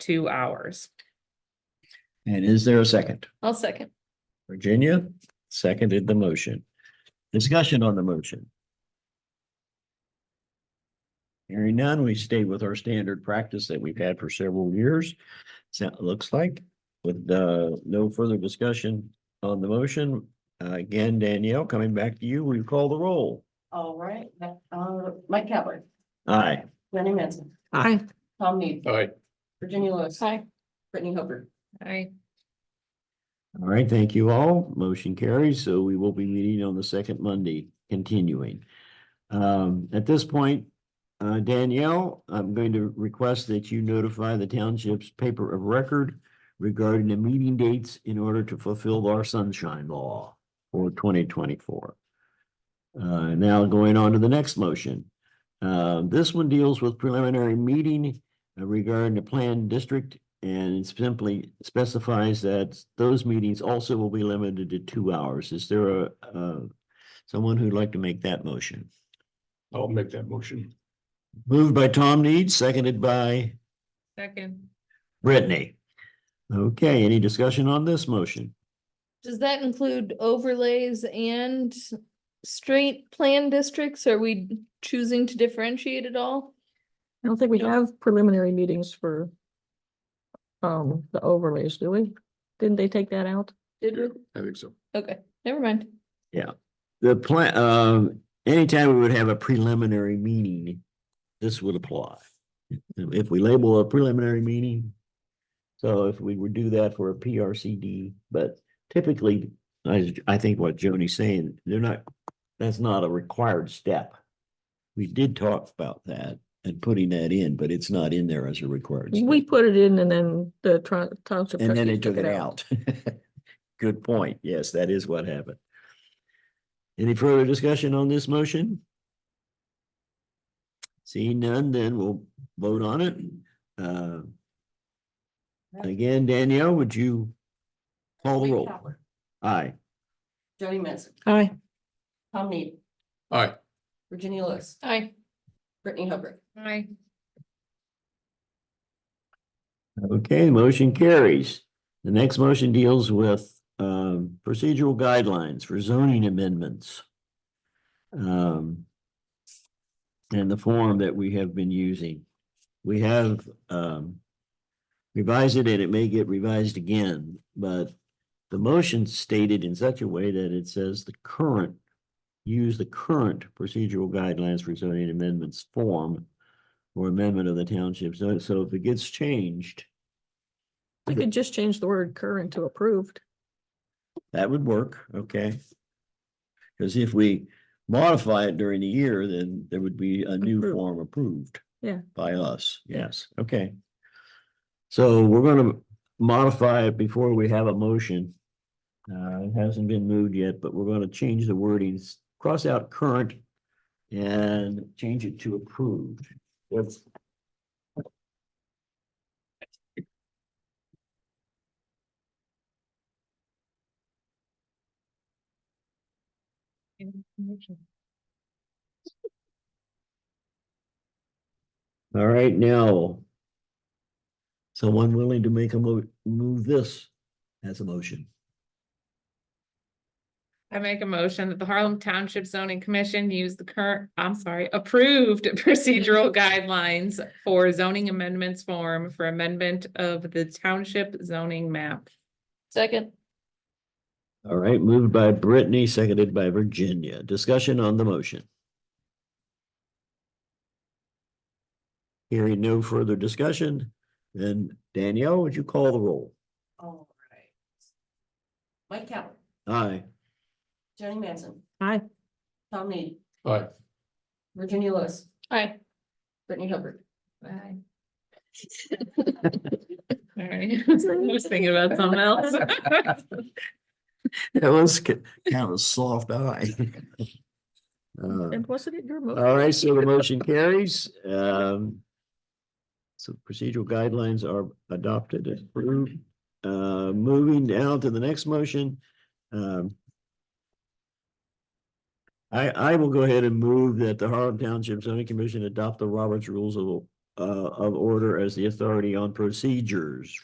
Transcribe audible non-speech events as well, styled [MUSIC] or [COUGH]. two hours. And is there a second? I'll second. Virginia seconded the motion. Discussion on the motion. Hearing none, we stay with our standard practice that we've had for several years. So it looks like with uh no further discussion on the motion. uh, Again, Danielle, coming back to you, we call the roll. All right, uh, Mike Kavler, Aye. Jenny Manson, Aye. Tom Need, All right. Virginia Lewis, Aye. Brittany Hooper. Aye. All right, thank you all. Motion carries, so we will be meeting on the second Monday, continuing. Um, at this point, uh, Danielle, I'm going to request that you notify the township's paper of record regarding the meeting dates in order to fulfill our sunshine law for twenty twenty-four. Uh, now going on to the next motion. Uh, this one deals with preliminary meeting uh, regarding the planned district and it simply specifies that those meetings also will be limited to two hours. Is there a, uh, someone who'd like to make that motion? I'll make that motion. Moved by Tom Need, seconded by Second. Brittany. Okay, any discussion on this motion? Does that include overlays and straight plan districts? Are we choosing to differentiate at all? I don't think we have preliminary meetings for um, the overlays, do we? Didn't they take that out? Did we? I think so. Okay, never mind. The plan, um, anytime we would have a preliminary meeting, this would apply. If we label a preliminary meeting. So if we would do that for a PRCD, but typically, I, I think what Joni's saying, they're not, that's not a required step. We did talk about that and putting that in, but it's not in there as a required. step. We put it in and then the tr- township And then trustees it took it out. [LAUGHS] Good point. Yes, that is what happened. Any further discussion on this motion? Seeing none, then we'll vote on it. Uh, Again, Danielle, would you call the Mike roll? Kavler, Aye. Jenny Manson, Aye. Tom Need, All right. Virginia Lewis, Aye. Brittany Hooper. Aye. Okay, motion carries. The next motion deals with um procedural guidelines for zoning amendments. Um. And the form that we have been using. We have um. Revised it and it may get revised again, but the motion stated in such a way that it says the current. Use the current procedural guidelines for zoning amendments form. Or amendment of the township, so so if it gets changed. We could just change the word current to approved. That would work, okay? Because if we modify it during the year, then there would be a new Approved. form approved. Yeah. By us, yes, okay. So we're gonna modify it before we have a motion. Uh, it hasn't been moved yet, but we're gonna change the wordings, cross out current and change it to approved. That's- All right, now. Someone willing to make a mo- move this as a motion? I make a motion that the Harlem Township Zoning Commission use the current, I'm sorry, approved [LAUGHS] procedural guidelines for zoning amendments form for amendment of the township zoning map. Second. All right, moved by Brittany, seconded by Virginia. Discussion on the motion. Hearing no further discussion, then Danielle, would you call the roll? All right. Mike Kavler, Aye. Jenny Manson, Aye. Tom Need, All right. Virginia Lewis, Aye. Brittany Hooper. Bye. [LAUGHS] All right, [LAUGHS] I was thinking about something else. That was ki- kind of a soft eye. Uh, And wasn't it your motion? All right, so the motion carries. Um. So procedural guidelines are adopted and approved. Uh, moving down to the next motion. Um. I, I will go ahead and move that the Harlem Township zoning commission adopt the Roberts rules of uh, of order as the authority on procedures